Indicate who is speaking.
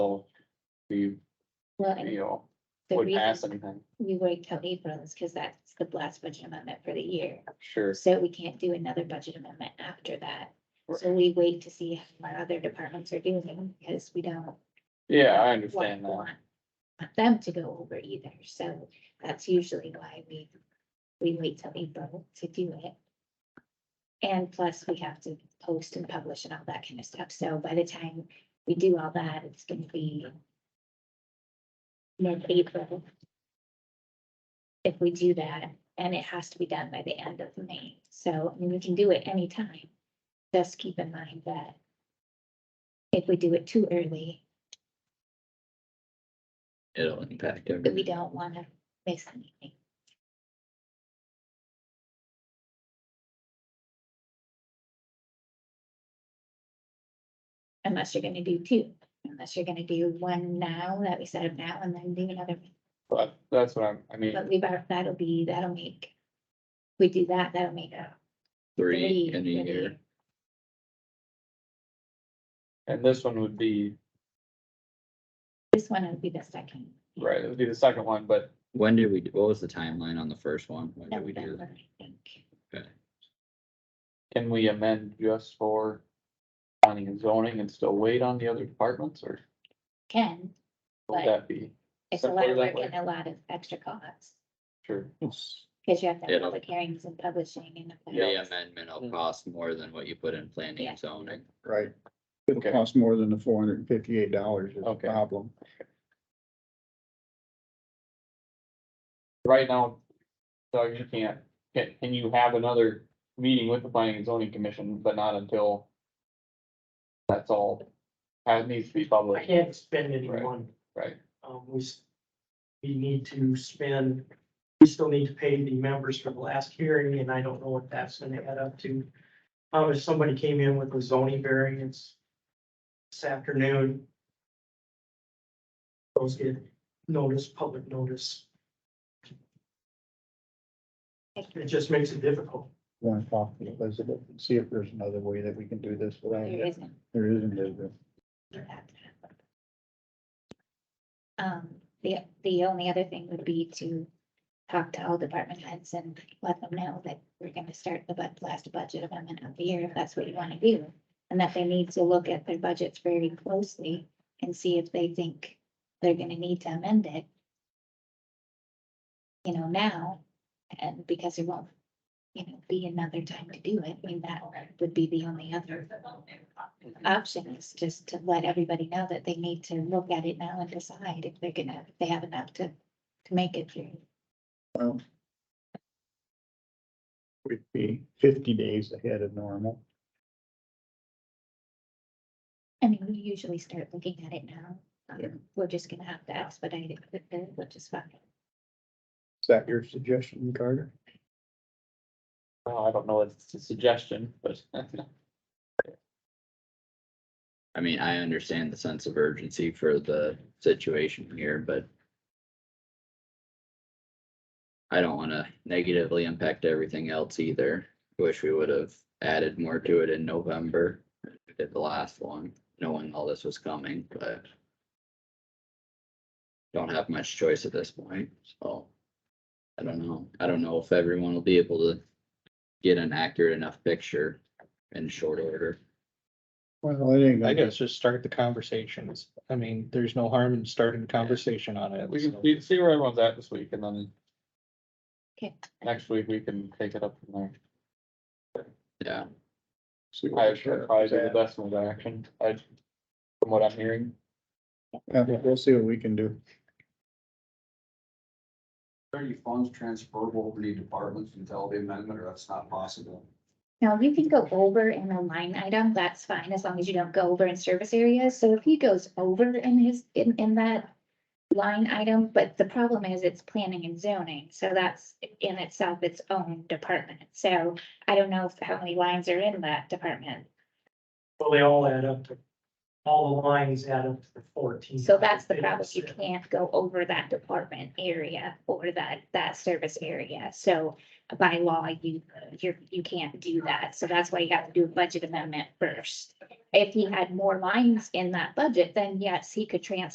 Speaker 1: we,
Speaker 2: Well,
Speaker 1: you
Speaker 2: and
Speaker 1: know,
Speaker 2: the
Speaker 1: would pass
Speaker 2: reason
Speaker 1: anything,
Speaker 2: we wait till April is because that's the last budget amendment for the year.
Speaker 1: sure.
Speaker 2: So we can't do another budget amendment after that. So we wait to see how our other departments are doing because we don't.
Speaker 1: Yeah, I
Speaker 2: want-
Speaker 1: understand that.
Speaker 2: want- Want them to go over either. So that's usually why we, we wait till April to do it. And plus we have to post and publish and all that kind of stuff. So by the time we do all that, it's gonna be mid-April. If we do that, and it has to be done by the end of May. So, I mean, we can do it anytime. Just keep in mind that if we do it too early,
Speaker 3: It'll impact
Speaker 2: that we
Speaker 3: everything.
Speaker 2: don't wanna miss anything. Unless you're gonna do two, unless you're gonna do one now that we set up now and then do another,
Speaker 1: But that's what I'm, I mean,
Speaker 2: but we've, al- that'll be, that'll make. We do that, that'll make a.
Speaker 3: Three in a
Speaker 2: for the
Speaker 3: year.
Speaker 1: and this one would be,
Speaker 2: This one would be the second.
Speaker 1: right, it would be the second one, but
Speaker 3: When did we, what was the timeline on the first one? When did we do
Speaker 2: November,
Speaker 3: that?
Speaker 2: I think.
Speaker 1: can we amend just for planning and zoning and still wait on the other departments, or
Speaker 2: Ken,
Speaker 1: would
Speaker 2: Right.
Speaker 1: that be?
Speaker 2: it's a
Speaker 1: Simpler
Speaker 2: lot of
Speaker 1: that
Speaker 2: work
Speaker 1: way.
Speaker 2: and a lot of extra costs,
Speaker 1: Sure,
Speaker 2: because you have to
Speaker 3: Yeah.
Speaker 2: have public hearings and publishing and. all that.
Speaker 3: The amendment will cost more than what you put in planning
Speaker 2: Mm. Yeah.
Speaker 3: and zoning.
Speaker 4: Right. It'll
Speaker 1: Okay.
Speaker 4: cost more than the four hundred and fifty-eight dollars is the
Speaker 1: Okay.
Speaker 4: problem.
Speaker 1: right now, Doug, you can't, can, can you have another meeting with the planning and zoning commission, but not until that's all, that needs to be
Speaker 5: I
Speaker 1: public,
Speaker 5: can't spend any
Speaker 1: Right.
Speaker 5: money.
Speaker 1: right?
Speaker 5: Um, we, s- we need to spend, we still need to pay the members for the last hearing, and I don't know what that's gonna add up to. Um, if somebody came in with a zoning variance this afternoon, those get notice, public notice. It just makes it difficult.
Speaker 4: Want to talk to Elizabeth and see if there's another way that we can do this without,
Speaker 2: There isn't.
Speaker 4: there isn't, is there?
Speaker 2: for that to happen. Um, the, the only other thing would be to talk to all department heads and let them know that we're gonna start the bud, last budget amendment of the year, if that's what you wanna do. And that they need to look at their budgets very closely and see if they think they're gonna need to amend it. You know, now, and because there won't, you know, be another time to do it, I mean, that would be the only other option is just to let everybody know that they need to look at it now and decide if they're gonna, if they have enough to, to make it through.
Speaker 4: Well. We'd be fifty days ahead of normal.
Speaker 2: I mean, we usually start looking at it now. Um,
Speaker 4: Yeah.
Speaker 2: We're just gonna have to expedite it, with the- which is fine.
Speaker 4: Is that your suggestion, Carter?
Speaker 1: Well, I don't know, if it's a suggestion, but
Speaker 3: I mean, I understand the sense of urgency for the situation here, but I don't wanna negatively impact everything else either. Wish we would have added more to it in November. We Did the last one, knowing all this was coming, but don't have much choice at this point, so I don't know. I don't know if everyone will be able to get an accurate enough picture in short order.
Speaker 4: Well, it ain't
Speaker 6: I
Speaker 4: gonna,
Speaker 6: guess just start the conversations. I mean, there's no harm in starting a conversation on it.
Speaker 1: we can,
Speaker 6: so.
Speaker 1: we can see where everyone's at this week, and then
Speaker 2: Okay.
Speaker 1: next week we can take it up from
Speaker 3: Yeah,
Speaker 4: see
Speaker 1: there. I
Speaker 4: what the
Speaker 1: would
Speaker 4: sheriff
Speaker 1: probably
Speaker 4: is
Speaker 1: be the
Speaker 4: at.
Speaker 1: best move action, I, from what I'm hearing,
Speaker 4: Yeah, we'll see what we can do.
Speaker 7: Are any funds transferable over the departments until the amendment, or that's not possible?
Speaker 2: Now, you can go over in a line item, that's fine, as long as you don't go over in service areas. So if he goes over in his, in, in that line item, but the problem is it's planning and zoning, so that's in itself its own department. So I don't know if- how many lines are in that department.
Speaker 5: Well, they all add up to, all the lines add up to the fourteen.
Speaker 2: So that's the problem,
Speaker 5: It's-
Speaker 2: you can't go over that department area or that, that service area. So by law, you, you're, you can't do that. So that's why you have to do a budget amendment first. If he had more lines in that budget, then yes, he could transfer